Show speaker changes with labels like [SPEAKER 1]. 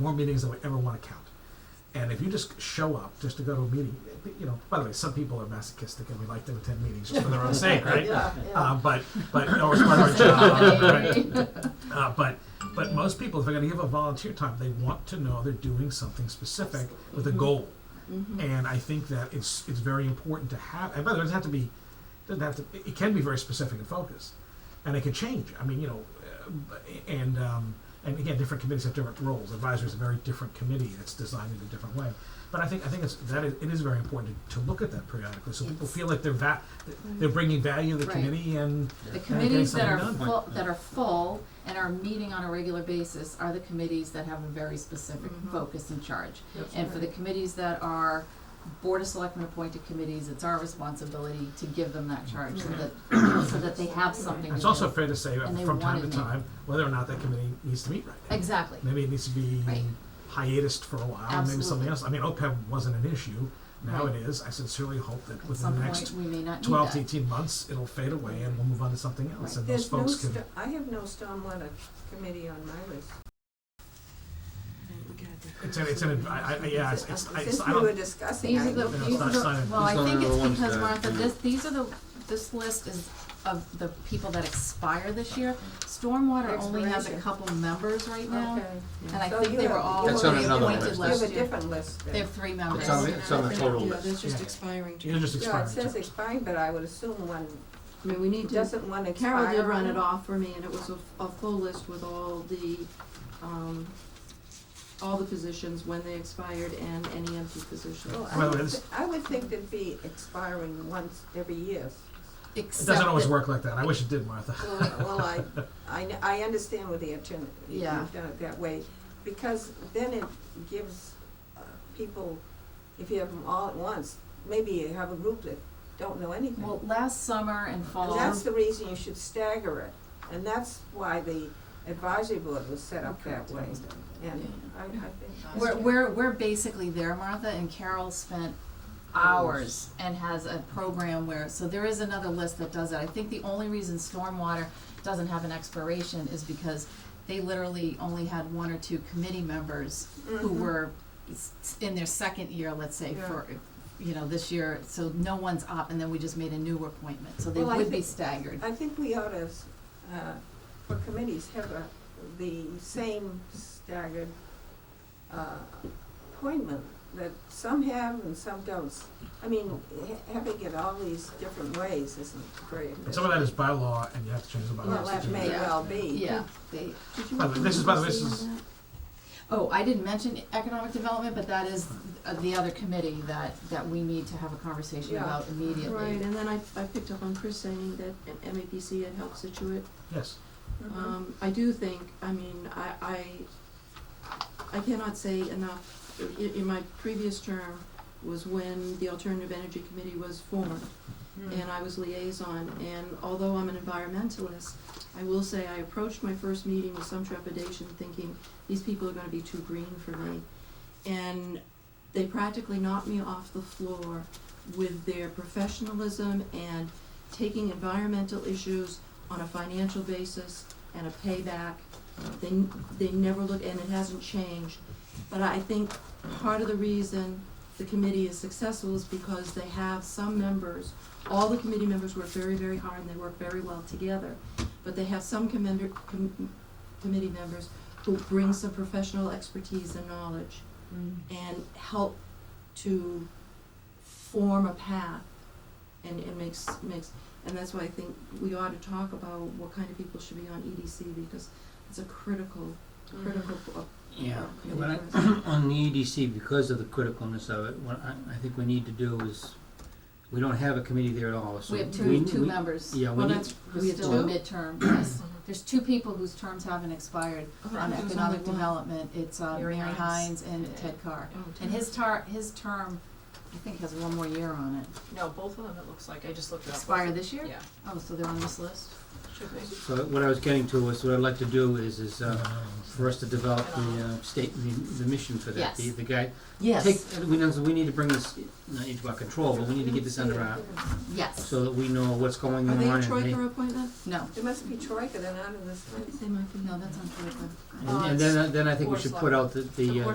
[SPEAKER 1] more meetings than we ever want to count. And if you just show up just to go to a meeting, you know, by the way, some people are masochistic and we like to attend meetings just for their own sake, right?
[SPEAKER 2] Yeah,
[SPEAKER 1] Uh,
[SPEAKER 3] Um,
[SPEAKER 2] yeah.
[SPEAKER 1] but but no, it's part of our job, right? Uh, but but most people, if they're going to give up volunteer time, they want to know they're doing something specific with a goal. And I think that it's it's very important to have. And by the way, it doesn't have to be. Doesn't have to. It can be very specific and focused, and it can change. I mean, you know, uh, and um, and again, different committees have different roles. Advisory is a very different committee. It's designed in a different way. But I think I think it's that is, it is very important to, to look at that periodically, so people
[SPEAKER 2] It's-
[SPEAKER 1] feel like they're va- they're bringing value to the
[SPEAKER 2] Right.
[SPEAKER 1] committee and And
[SPEAKER 4] The
[SPEAKER 1] getting
[SPEAKER 4] committees that are
[SPEAKER 1] something done.
[SPEAKER 4] full, that are full and are meeting on a regular basis are the committees that have a very specific
[SPEAKER 3] Mm-hmm.
[SPEAKER 2] Mhm.
[SPEAKER 4] focus and charge.
[SPEAKER 2] That's
[SPEAKER 4] And for the
[SPEAKER 2] right.
[SPEAKER 4] committees that are Board of Selectmen appointed committees, it's our responsibility to give them that charge so that, so that they have something
[SPEAKER 1] And
[SPEAKER 4] to
[SPEAKER 1] It's also
[SPEAKER 4] do.
[SPEAKER 1] fair to say uh,
[SPEAKER 4] And they
[SPEAKER 1] from time
[SPEAKER 4] wanna
[SPEAKER 1] to
[SPEAKER 4] meet.
[SPEAKER 1] time whether or not that committee needs to meet right now.
[SPEAKER 4] Exactly,
[SPEAKER 1] Maybe it needs to be
[SPEAKER 4] Right.
[SPEAKER 1] hiatused for a while, maybe something
[SPEAKER 4] Absolutely.
[SPEAKER 1] else. I mean, OPEB wasn't an issue. Now
[SPEAKER 4] Right.
[SPEAKER 1] it is. I sincerely hope that
[SPEAKER 4] at
[SPEAKER 1] within the
[SPEAKER 4] some point,
[SPEAKER 1] next
[SPEAKER 4] we may not need
[SPEAKER 1] 12 to
[SPEAKER 4] that.
[SPEAKER 1] 18 months, it'll fade away and we'll move on to something else.
[SPEAKER 4] Right.
[SPEAKER 1] And those
[SPEAKER 3] There's no,
[SPEAKER 1] folks can.
[SPEAKER 3] sto- I have no stormwater committee on my list.
[SPEAKER 1] It's an, it's an, I, I, yeah, it's, it's, I, it's,
[SPEAKER 3] Since
[SPEAKER 1] I
[SPEAKER 3] we were
[SPEAKER 1] don't.
[SPEAKER 3] discussing,
[SPEAKER 4] These
[SPEAKER 3] I
[SPEAKER 4] are the,
[SPEAKER 1] No, it's
[SPEAKER 4] these
[SPEAKER 1] not
[SPEAKER 4] are the,
[SPEAKER 1] signed.
[SPEAKER 4] well, I
[SPEAKER 5] These
[SPEAKER 4] think
[SPEAKER 5] are
[SPEAKER 4] it's
[SPEAKER 5] the ones
[SPEAKER 4] because
[SPEAKER 5] that
[SPEAKER 4] Martha,
[SPEAKER 5] you-
[SPEAKER 4] this, these are the, this list is of the people that expire this year. Stormwater only has a
[SPEAKER 3] Expiration.
[SPEAKER 4] couple members right now.
[SPEAKER 3] okay.
[SPEAKER 4] And I
[SPEAKER 3] So
[SPEAKER 4] think
[SPEAKER 3] you
[SPEAKER 4] they were
[SPEAKER 3] have-
[SPEAKER 4] all
[SPEAKER 3] you
[SPEAKER 5] That's
[SPEAKER 3] have
[SPEAKER 5] on
[SPEAKER 3] a
[SPEAKER 5] another
[SPEAKER 3] different-
[SPEAKER 5] list.
[SPEAKER 4] appointed last
[SPEAKER 3] You have a
[SPEAKER 4] year.
[SPEAKER 3] different list then.
[SPEAKER 4] They have three members.
[SPEAKER 5] It's on the, it's on the total
[SPEAKER 6] Yeah,
[SPEAKER 5] list.
[SPEAKER 6] there's just
[SPEAKER 1] Yeah.
[SPEAKER 6] expiring.
[SPEAKER 1] You're just
[SPEAKER 3] Yeah, it
[SPEAKER 1] expiring.
[SPEAKER 3] says expiring, but I would assume one
[SPEAKER 6] I mean, we need to,
[SPEAKER 3] doesn't one expire.
[SPEAKER 6] Carol did run it
[SPEAKER 3] on-
[SPEAKER 6] off for me, and it was a, a full list with all the, um, all the positions, when they expired, and any empty positions.
[SPEAKER 3] Well,
[SPEAKER 1] Well,
[SPEAKER 3] I would,
[SPEAKER 1] it's-
[SPEAKER 3] thi- I would think there'd be expiring once every year.
[SPEAKER 1] It
[SPEAKER 4] Except
[SPEAKER 1] doesn't always
[SPEAKER 4] that-
[SPEAKER 1] work like that. I wish it did, Martha.
[SPEAKER 3] Well, well, I, I, kn- I understand with the attorney, you've
[SPEAKER 4] Yeah.
[SPEAKER 3] done it that way, because then it gives uh, people, if you have them all at once, maybe you have a group that don't know anything.
[SPEAKER 4] Well, um, last summer and
[SPEAKER 3] And
[SPEAKER 4] fall,
[SPEAKER 3] that's the reason you should stagger it, and that's why the advisory board was set up that way, and I, I think.
[SPEAKER 4] we're, we're, we're basically there, Martha, and Carol spent hours and has a program where, so there is another list that does that. I think the only reason stormwater doesn't have an expiration is because they literally only had one or two committee members who
[SPEAKER 6] Mm-hmm.
[SPEAKER 3] Mhm.
[SPEAKER 4] were s- s- in their second year, let's say,
[SPEAKER 3] Yeah.
[SPEAKER 4] for, you know, this year, so no one's up, and then we just made a new appointment, so
[SPEAKER 6] Oh,
[SPEAKER 4] they
[SPEAKER 3] Well, I
[SPEAKER 4] would be
[SPEAKER 3] think-
[SPEAKER 4] staggered.
[SPEAKER 3] I think we ought to, s- uh, for committees, have a, the same staggered, uh, appointment that some have and some don't. I mean, ha- having it all these different ways isn't very
[SPEAKER 1] And some of that is by law and you have to change the bylaws.
[SPEAKER 3] Well,
[SPEAKER 1] to
[SPEAKER 3] that
[SPEAKER 1] do
[SPEAKER 3] may
[SPEAKER 1] that.
[SPEAKER 3] well be.
[SPEAKER 4] Yeah, they,
[SPEAKER 6] Did you
[SPEAKER 1] By the way, this is- by the way,
[SPEAKER 6] see
[SPEAKER 1] this is-
[SPEAKER 6] on that?
[SPEAKER 4] Oh, I didn't mention economic development, but that is uh, the other committee that, that we need to have a conversation
[SPEAKER 3] Yeah.
[SPEAKER 4] about immediately.
[SPEAKER 6] Right, and then I, I picked up on Chris saying that an MAPC had helped Situate
[SPEAKER 1] Yes.
[SPEAKER 3] Mhm.
[SPEAKER 6] Um, I do think, I mean, I, I, I cannot say enough, in, in my previous term was when the Alternative Energy Committee was formed,
[SPEAKER 3] Mm.
[SPEAKER 6] and I was liaison, and although I'm an environmentalist, I will say I approached my first meeting with some trepidation, thinking, these people are gonna be too green for me. And they practically knocked me off the floor with their professionalism and taking environmental issues on a financial basis and a payback. They, n- they never look, and it hasn't changed. But I think part of the reason the committee is successful is because they have some members, all the committee members work very, very hard and they work very well together. But they have some commender, com- committee members who bring some professional expertise and knowledge and help to form a path and, and makes, makes, and that's why I think we ought to talk about what kind of people should be on EDC because it's a critical, critical, uh,
[SPEAKER 5] Yeah,
[SPEAKER 6] Yeah,
[SPEAKER 5] when I, on the EDC, because of the criticalness of it, what I, I think we need to do is, we don't have a committee there at all, so.
[SPEAKER 4] We have two, two
[SPEAKER 5] we-
[SPEAKER 4] members
[SPEAKER 5] Yeah, we
[SPEAKER 6] well,
[SPEAKER 5] need,
[SPEAKER 6] that's,
[SPEAKER 4] who
[SPEAKER 6] we
[SPEAKER 4] are
[SPEAKER 6] had
[SPEAKER 4] still in
[SPEAKER 6] two.
[SPEAKER 4] midterm, yes. There's two people whose terms haven't expired on
[SPEAKER 6] there's
[SPEAKER 4] economic
[SPEAKER 6] only one.
[SPEAKER 4] development. It's uh,
[SPEAKER 6] Mary
[SPEAKER 4] Mary Hines
[SPEAKER 6] Hines.
[SPEAKER 4] and Ted Carr.
[SPEAKER 6] Oh,
[SPEAKER 4] And his tar, his term I think has one more year on it.
[SPEAKER 2] No, both of them, it looks like, I just looked it up.
[SPEAKER 4] Expire this year?
[SPEAKER 2] Yeah,
[SPEAKER 4] Oh, so they're on this list?
[SPEAKER 2] should be.
[SPEAKER 5] So what I was getting to was, what I'd like to do is, is, uh, for us to develop the, uh, state, the, the mission for that, the,
[SPEAKER 4] Yes.
[SPEAKER 5] the guy. Take, we know, we need to bring this, not into our control, but we need to get this under our,
[SPEAKER 4] Yes,
[SPEAKER 5] so that we know what's going
[SPEAKER 6] Are
[SPEAKER 5] on
[SPEAKER 6] they a
[SPEAKER 5] and make-
[SPEAKER 6] Troika appointment?
[SPEAKER 4] no,
[SPEAKER 3] It must be Troika, they're not in this
[SPEAKER 6] I
[SPEAKER 3] list.
[SPEAKER 6] think they might be.
[SPEAKER 4] no, that's on Twitter.
[SPEAKER 5] And and then, then I think we
[SPEAKER 2] Or
[SPEAKER 5] should put
[SPEAKER 2] select-
[SPEAKER 5] out the, the, uh,